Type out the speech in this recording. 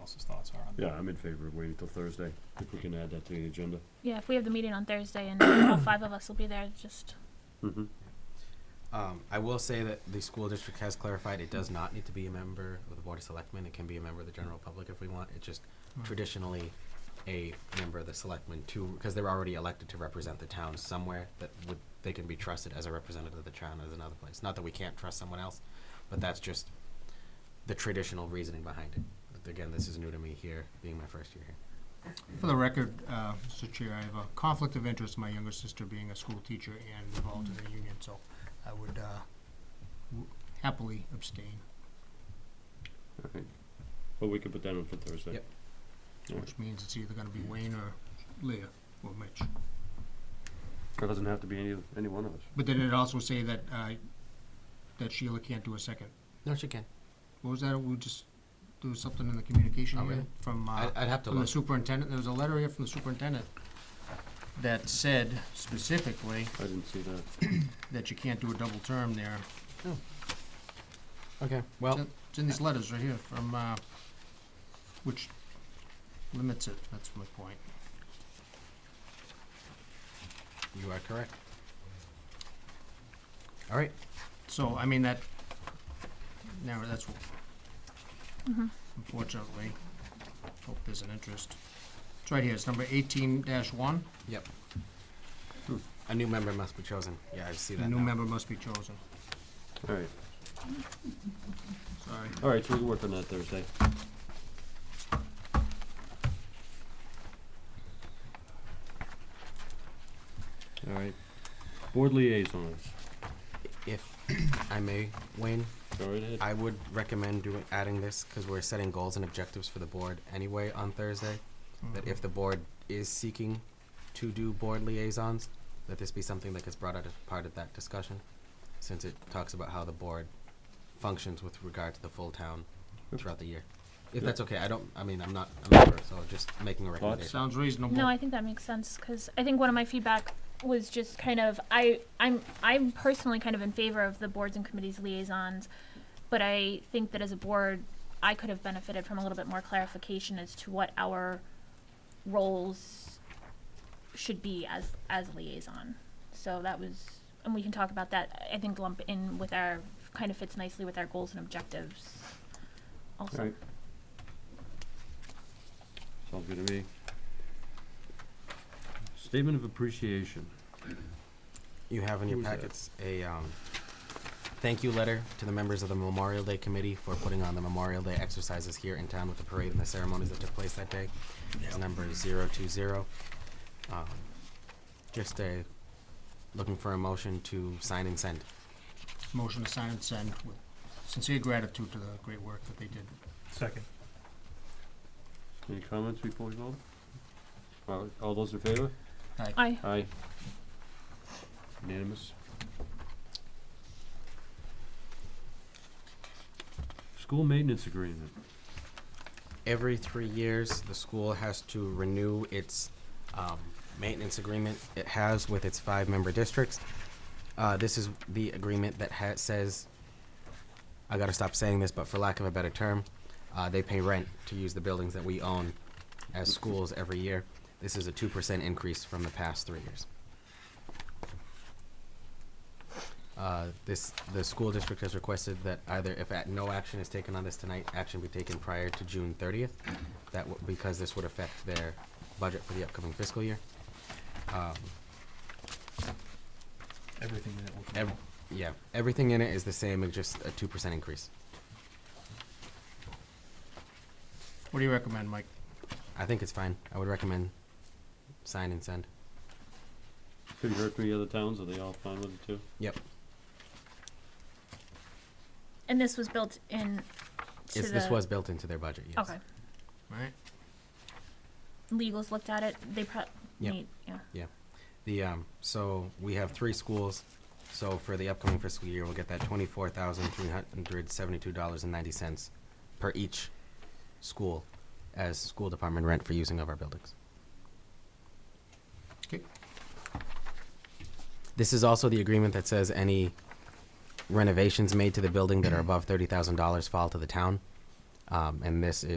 else's thoughts are on that. Yeah, I'm in favor of waiting till Thursday, if we can add that to the agenda. Yeah, if we have the meeting on Thursday and all five of us will be there, just Mm-hmm. Um, I will say that the school district has clarified it does not need to be a member of the Board of Selectmen. It can be a member of the general public if we want. It's just Right. traditionally a member of the selectmen too, because they're already elected to represent the town somewhere that would, they can be trusted as a representative of the town as another place. Not that we can't trust someone else, but that's just the traditional reasoning behind it. Again, this is new to me here, being my first year here. For the record, uh, Mr. Chair, I have a conflict of interest, my younger sister being a school teacher and involved in the union, so I would uh, w- happily abstain, Alright, well, we can put that in for Thursday. Yep. Alright. which means it's either gonna be Wayne or Leah or Mitch. It doesn't have to be any, any one of us. But then it also say that, uh, that Sheila can't do a second. No, she can. What was that, we just, there was something in the communication Oh, here really? from, I, uh, I'd have to from the look. superintendent, there was a letter here from the superintendent that said specifically I didn't see that. that you can't do a double term there. Okay, well, It's in- It's in these letters right here from, uh, which limits it, that's my point. you are correct. All right, So, I mean, that, now, that's, wh- Mm-hmm. unfortunately, hope there's an interest. It's right here, it's number eighteen dash one, Yep. A new member must be chosen. Yeah, I see the that new now. member must be chosen, Alright, sorry. alright, so we can work on that Thursday. Alright, board liaisons, If I may, Wayne, go right ahead. I would recommend doing, adding this, because we're setting goals and objectives for the board anyway on Thursday. That if the board is seeking to do board liaisons, that this be something that gets brought out as part of that discussion, since it talks about how the board functions with regard to the full town Yep. throughout the year. Yep. If that's okay, I don't, I mean, I'm not a member, so just making a recommendation. Sounds reasonable. No, I think that makes sense because I think one of my feedback was just kind of I I'm I'm personally kind of in favor of the boards and committees liaisons, but I think that as a board, I could have benefited from a little bit more clarification as to what our roles should be as as liaison. So that was, and we can talk about that. I think lump in with our kind of fits nicely with our goals and objectives. Also, Right. Sounds good to me. Statement of appreciation. You have in your Who's that? packets a um, thank you letter to the members of the Memorial Day Committee for putting on the Memorial Day exercises here in town with the parade and the ceremonies that took place that day. It's number 020. Um, Just a, looking for a motion to sign and send. Motion to sign and send with sincere gratitude to the great work that they did. Second. Any comments before we vote? All, all those in favor? I Aye. Unanimous. School maintenance agreement. Every three years, the school has to renew its um, maintenance agreement it has with its five-member districts. Uh, This is the agreement that ha- says, I gotta stop saying this, but for lack of a better term, uh, they pay rent to use the buildings that we own as schools every year. This is a two percent increase from the past three years. Uh, This, the school district has requested that either if at- no action is taken on this tonight, action be taken prior to June thirtieth. That, w- because this would affect their budget for the upcoming fiscal year. Um, Everything in it will come ev- out. Yeah, everything in it is the same, it's just a two percent increase. What do you recommend, Mike? I think it's fine. I would recommend sign and send. Have you heard from the other towns? Are they all fine with it too? Yep. and this was built in. To It's, the, this was built into their budget, yes. okay. Right? legals looked at it, they pro- Yep. need, yeah. The, um, so we have three schools, so for the upcoming fiscal year, we'll get that twenty-four thousand three hundred seventy-two dollars and ninety cents per each school as school department rent for using of our buildings. Okay. This is also the agreement that says any renovations made to the building that are above thirty thousand dollars fall to the town. Um, and this is